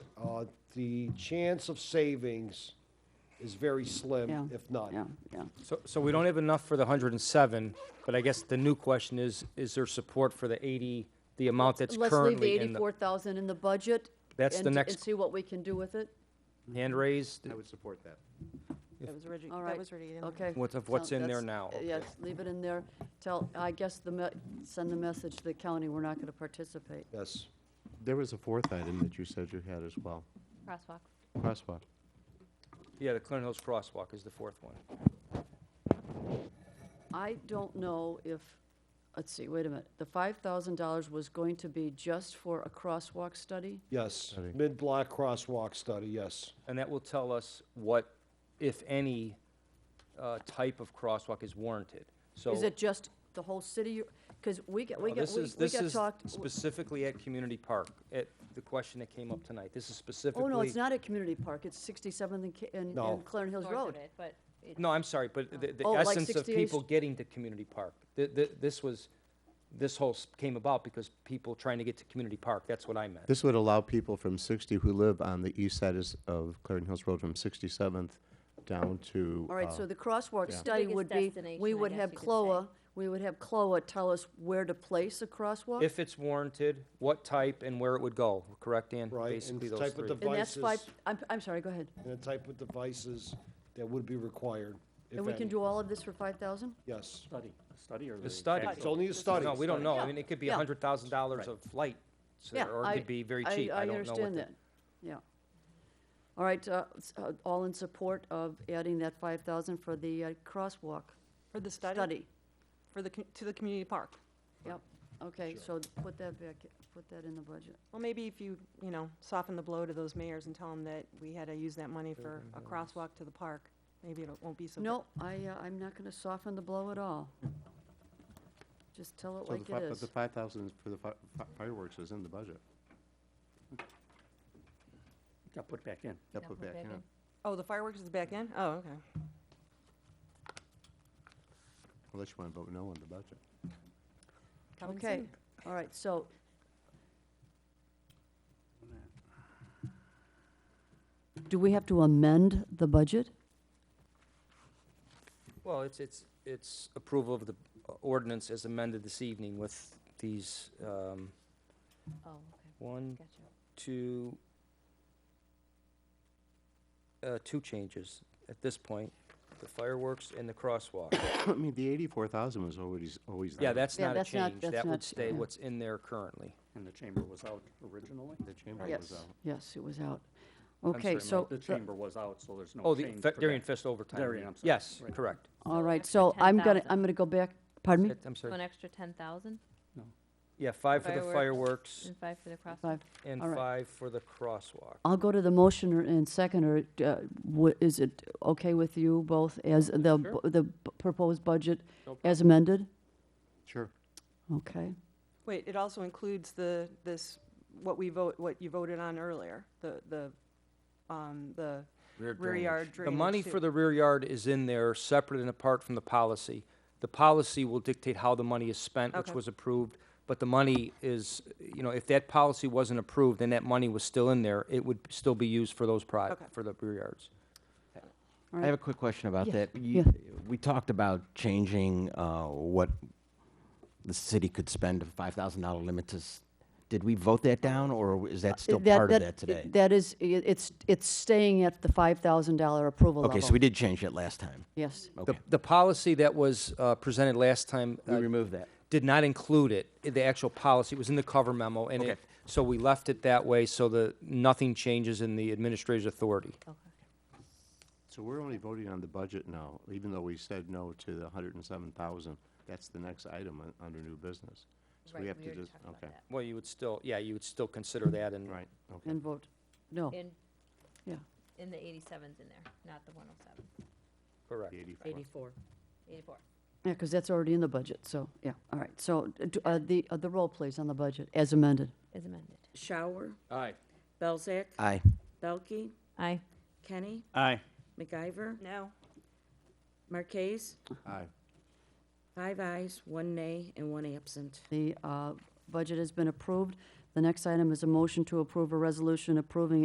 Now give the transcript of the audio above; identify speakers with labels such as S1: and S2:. S1: uh, the chance of savings is very
S2: Yeah,
S1: slim,
S2: Yeah,
S1: if none.
S2: yeah.
S3: So, so we don't have enough for the hundred and seven, but I guess the new question is, is there support for the eighty, the amount that's
S4: Let's leave the
S3: currently in the
S4: eighty-four thousand in the budget.
S3: That's the
S4: and-
S3: next-
S4: And see what we can do with it.
S3: hand raised?
S5: I would support that.
S6: That was already,
S4: All
S6: that
S4: right.
S6: was already in there.
S4: Okay.
S3: What of what's
S4: So
S3: in there
S4: that's-
S3: now,
S4: uh,
S3: okay.
S4: Yes, leave it in there. Tell, I guess the, me- send the message to the county, we're not going to participate.
S1: Yes.
S5: There was a fourth item that you said you had as well,
S7: Crosswalk.
S5: crosswalk.
S3: Yeah, the Clinton Hills Crosswalk is the fourth one.
S4: I don't know if, let's see, wait a minute. The five thousand dollars was going to be just for a crosswalk study?
S1: Yes, mid-block crosswalk study, yes.
S3: And that will tell us what, if any, uh, type of crosswalk is warranted. So.
S4: Is it just the whole city? Because we got, we
S3: Well,
S4: got,
S3: this
S4: we
S3: is-
S4: we got talked.
S3: This is specifically at Community Park, at the question that came up tonight. This is specifically.
S4: Oh, no, it's not at Community Park. It's sixty-seventh and, Ca- and
S1: No.
S4: and Clarendon Hills
S7: north of
S4: Road.
S7: it, But it-
S3: No, I'm sorry, but the, the
S4: Oh, like
S3: essence of
S4: 68
S3: people getting to Community Park. Th- th- This was, this whole s- came about because people trying to get to Community Park, that's what I meant.
S5: This would allow people from 60 who live on the east side is- of Clarendon Hills Road from 67th down to.
S4: All right,
S5: uh,
S4: so the crosswalk
S5: Yeah.
S4: study
S7: biggest
S4: would be, we
S7: destination, I
S4: would
S7: guess
S4: have
S7: you could say.
S4: CLOA, we would have CLOA tell us where to place a crosswalk?
S3: If it's warranted, what type and where it would go, correct, Dan?
S1: Right, and the
S3: Basically those
S1: type of
S3: three.
S1: dev-
S4: And that's five,
S1: devices.
S4: I'm, I'm sorry, go ahead.
S1: And the type of devices that would be required, if
S4: And we can
S1: any.
S4: do all of this for five thousand?
S1: Yes.
S8: Study, study or?
S3: The study.
S1: It's only a study.
S3: No, we don't know. I mean, it could be a
S4: Yeah.
S3: hundred thousand dollars of flight, so-
S4: Yeah,
S3: or it
S4: I-
S3: could be very cheap. I don't know what
S4: understand
S3: the.
S4: that, yeah. All right, uh, s- uh, all in support of adding that five thousand for the uh, crosswalk
S6: For the study,
S4: study?
S6: for the, co- to the community park.
S4: Yep, okay, so put that back, put that in the budget.
S6: Well, maybe if you, you know, soften the blow to those mayors and tell them that we had to use that money for a crosswalk to the park, maybe it won't be so. bad.
S4: No, I, uh, I'm not gonna soften the blow at all. Just tell it
S5: so the
S4: like
S5: fi-
S4: it
S5: but
S4: is.
S5: The 5,000 for the fi- fi- fireworks is in the budget.
S8: Got put back in.
S5: That
S7: Now
S5: put
S7: put
S5: back
S7: back
S5: in.
S7: in.
S6: Oh, the fireworks is back in? Oh, okay.
S5: Unless you want to vote no on the budget.
S6: Coming
S4: Okay,
S6: soon.
S4: all right, so Do we have to amend the budget?
S3: Well, it's, it's, it's approval of the uh, ordinance as amended this evening with these, um,
S7: oh, okay,
S3: one,
S7: gotcha.
S3: two, uh, two changes at this point, the fireworks and the crosswalk.
S5: I mean, the 84,000 was always, always there.
S3: Yeah, that's
S4: Yeah,
S3: not a
S4: that's not-
S3: change.
S4: that's
S3: That would
S4: not-
S3: stay
S4: yeah.
S3: what's in there currently.
S8: And the chamber was out originally?
S5: The chamber was
S4: Yes,
S5: out.
S4: yes, it was out. Okay,
S3: sorry,
S4: so,
S8: The
S4: the-
S8: chamber was out, so there's no
S3: Oh,
S8: change.
S3: the
S8: for
S3: fe- Darien
S8: that.
S3: Fest overtime.
S8: Darien, I'm sorry.
S3: Yes,
S8: Right.
S3: correct.
S4: all right,
S7: extra
S4: so I'm gonna,
S7: 10,000.
S4: I'm gonna go back, pardon me?
S3: It- I'm
S7: So an
S3: sorry.
S7: extra ten thousand
S3: Yeah, five for the
S7: Fireworks.
S3: fireworks
S7: and five for the crosswalk.
S4: Five.
S3: and
S4: all right.
S3: five for the crosswalk.
S4: I'll go to the motioner and seconder. Uh, wha- Is it okay with you both as the, bu- the bu- proposed budget as amended?
S5: Sure.
S4: Okay,
S6: Wait, it also includes the, this, what we vote, what you voted on earlier, the, the, um, the rear yard
S3: The
S6: drainage.
S3: money
S6: too.
S3: for the rear yard is in there, separate and apart from the policy. The policy will dictate how the money is spent, which
S6: Okay.
S3: was approved, but the money is, you know, if that policy wasn't approved and that money was still in there, it would still be used for those pri-
S6: Okay.
S3: for the rear yards.
S9: I have a quick question about
S4: Yeah,
S9: that. You- We talked about changing uh, what the city could spend, a $5,000 limit to, s- did we vote that down, or is that still
S4: That-
S9: part of
S4: that-
S9: that today?
S4: That is, i- it's, it's staying at the $5,000 approval level.
S9: Okay, so we did change it last time.
S4: Yes.
S3: The,
S9: Okay,
S3: the policy that was uh, presented last time
S9: we
S3: uh,
S9: removed that.
S3: did not include it, i- the actual policy, it was in the cover memo, and
S9: Okay.
S3: it, so we left it that way so that nothing changes in the administrator's authority.
S5: So we're only voting on the budget now, even though we said no to the 107,000. That's the next item un- under new business. So
S7: Right,
S5: we have to
S7: already
S5: just,
S7: talked about
S5: okay,
S7: that.
S3: Well, you would still, yeah, you would still consider that and
S5: right, okay.
S4: And vote,
S5: Oh.
S4: no,
S7: In,
S4: yeah.
S7: in the eighty-seven's in there, not the one oh seven.
S3: Correct.
S5: The 84.
S2: Eighty-four.
S7: Eighty-four.
S4: Yeah, because that's already in the budget, so, yeah, all right. So uh, d- uh, the, uh, the roll, please, on the budget, as amended.
S7: is amended.
S2: Shower,
S8: Aye.
S2: Belzak,
S9: Aye.
S2: Belkey,
S7: Aye.
S2: Kenny,
S8: Aye.
S2: MacIver,
S6: No,
S2: Marquez.
S5: Aye.
S2: Five ayes, one nay, and one absent.
S4: The uh, budget has been approved. The next item is a motion to approve a resolution approving